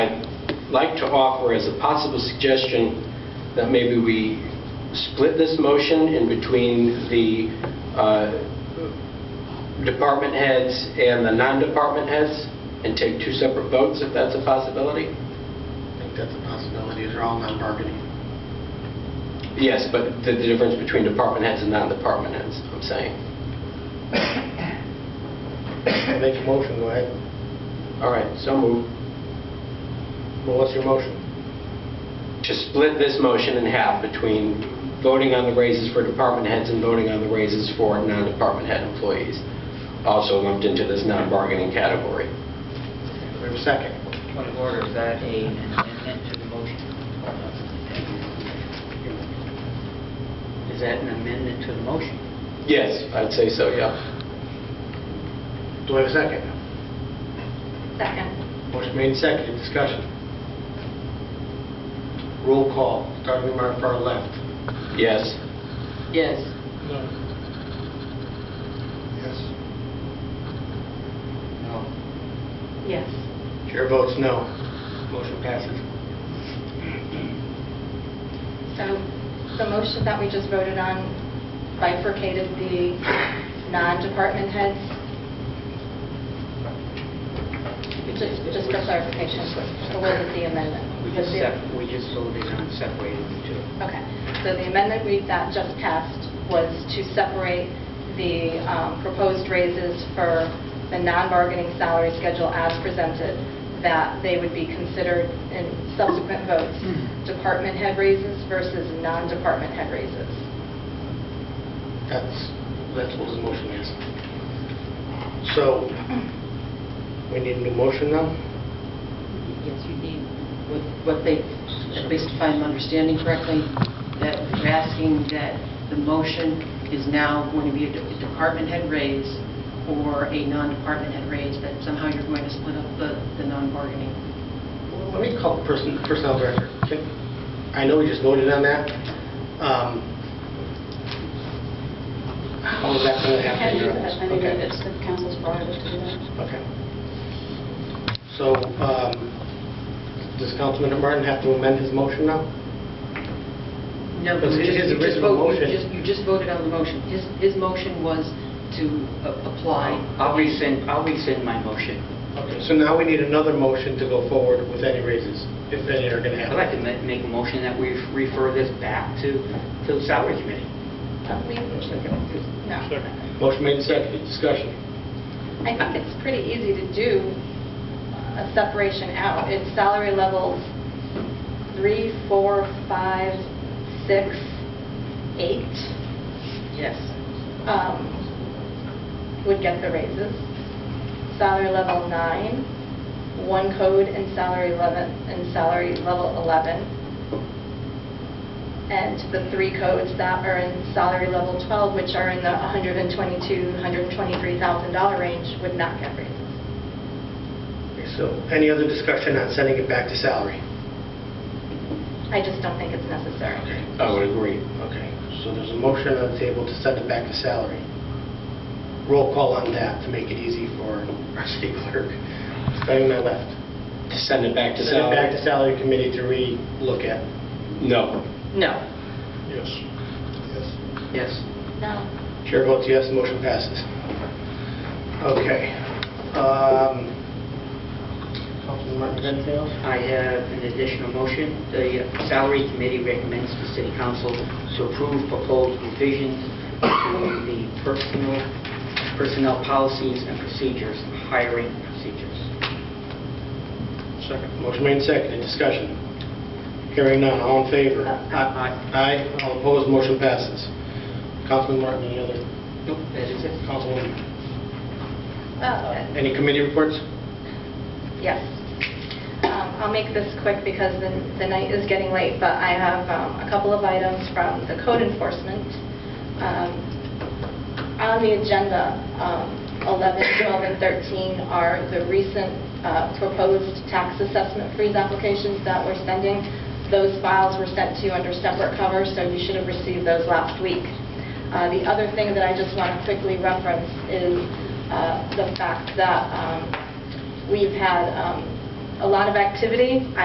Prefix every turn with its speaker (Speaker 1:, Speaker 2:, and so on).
Speaker 1: like to offer as a possible suggestion that maybe we split this motion in between the uh, department heads and the non-department heads and take two separate votes if that's a possibility?
Speaker 2: I think that's a possibility, they're all non-bargaining.
Speaker 1: Yes, but the the difference between department heads and non-department heads, I'm saying.
Speaker 3: Make a motion, go ahead.
Speaker 1: All right, so move
Speaker 3: Well, what's your motion?
Speaker 1: to split this motion in half between voting on the raises for department heads and voting on the raises for non-department head employees, also lumped into this non-bargaining category.
Speaker 2: We have a second.
Speaker 4: Point of order, is that a amendment to the motion? Is that an amendment to the motion?
Speaker 1: Yes, I'd say so, yeah.
Speaker 2: Do I have a second?
Speaker 5: Second.
Speaker 2: Motion made, seconded, discussion. Roll call, starting with our far left.
Speaker 1: Yes.
Speaker 4: Yes.
Speaker 2: Yes. No.
Speaker 5: Yes.
Speaker 2: Chair votes no. Motion passes.
Speaker 5: So the motion that we just voted on bifurcated the non-department heads? Just just for clarification, so what is the amendment?
Speaker 4: We just sep- we just voted on separating the two.
Speaker 5: Okay, so the amendment we, that just passed was to separate the um, proposed raises for the non-bargaining salary schedule as presented, that they would be considered in subsequent votes, department head raises versus non-department head raises.
Speaker 2: That's, that's what the motion is. So, we need a new motion now?
Speaker 6: Yes, you need, what what they, at least if I'm understanding correctly, that you're asking that the motion is now going to be a de- department head raise or a non-department head raise, that somehow you're going to split up the the non-bargaining.
Speaker 2: Let me call the person, personnel director. Can- I know we just voted on that. Um, How is that going to happen?
Speaker 7: Can
Speaker 2: Your
Speaker 7: you-
Speaker 2: Honor?
Speaker 7: I mean,
Speaker 2: Okay.
Speaker 7: it's the council's prerogative to do that.
Speaker 2: Okay. So, um, does Councilman Martin have to amend his motion now?
Speaker 6: No,
Speaker 2: But
Speaker 6: you
Speaker 2: his
Speaker 6: just- you just
Speaker 2: original
Speaker 6: vote- you
Speaker 2: motion-
Speaker 6: just- You just voted on the motion. His his motion was to a- apply.
Speaker 4: I'll rescind, I'll rescind my motion.
Speaker 2: Okay, so now we need another motion to go forward with any raises, if any are going to
Speaker 4: I'd like
Speaker 2: happen.
Speaker 4: to ma- make a motion that we refer this back to, to the salary committee.
Speaker 5: We- No.
Speaker 2: Motion made and seconded, discussion.
Speaker 5: I think it's pretty easy to do a separation out. It's salary levels three, four, five, six, eight.
Speaker 6: Yes.
Speaker 5: um, would get the raises. Salary level nine, one code and salary level, and salary level 11. And the three codes that are in salary level 12, which are in the $122,000, $123,000 range, would not get raises.
Speaker 2: Okay, So, any other discussion on sending it back to salary?
Speaker 5: I just don't think it's necessary.
Speaker 1: I would agree.
Speaker 2: Okay, so there's a motion on the table to send it back to salary. Roll call on that to make it easy for our city clerk. Starting my left.
Speaker 1: To send it back to
Speaker 2: Send it
Speaker 1: salary?
Speaker 2: back to salary committee to re-look at.
Speaker 1: No.
Speaker 6: No.
Speaker 3: Yes. Yes.
Speaker 4: Yes.
Speaker 5: No.
Speaker 2: Chair votes yes, the motion passes. Okay. Um, Councilman Martin, you got anything else?
Speaker 4: I have an additional motion. The salary committee recommends the city council to approve proposed revisions to the personal, personnel policies and procedures, hiring procedures.
Speaker 2: Second. Motion made and seconded, discussion. Hearing none, all in favor?
Speaker 4: Aye.
Speaker 2: Aye, all opposed, motion passes. Councilman Martin, any other?
Speaker 4: Nope, that is it.
Speaker 2: Councilwoman?
Speaker 5: Uh,
Speaker 2: Any committee reports?
Speaker 5: Yes. Um, I'll make this quick because the the night is getting late, but I have um, a couple of items from the code enforcement. Um, On the agenda, um, 11, 12, and 13 are the recent uh, proposed tax assessment freeze applications that we're sending. Those files were sent to you under separate cover, so you should have received those last week. Uh, The other thing that I just want to quickly reference is uh, the fact that um, we've had um, a lot of activity.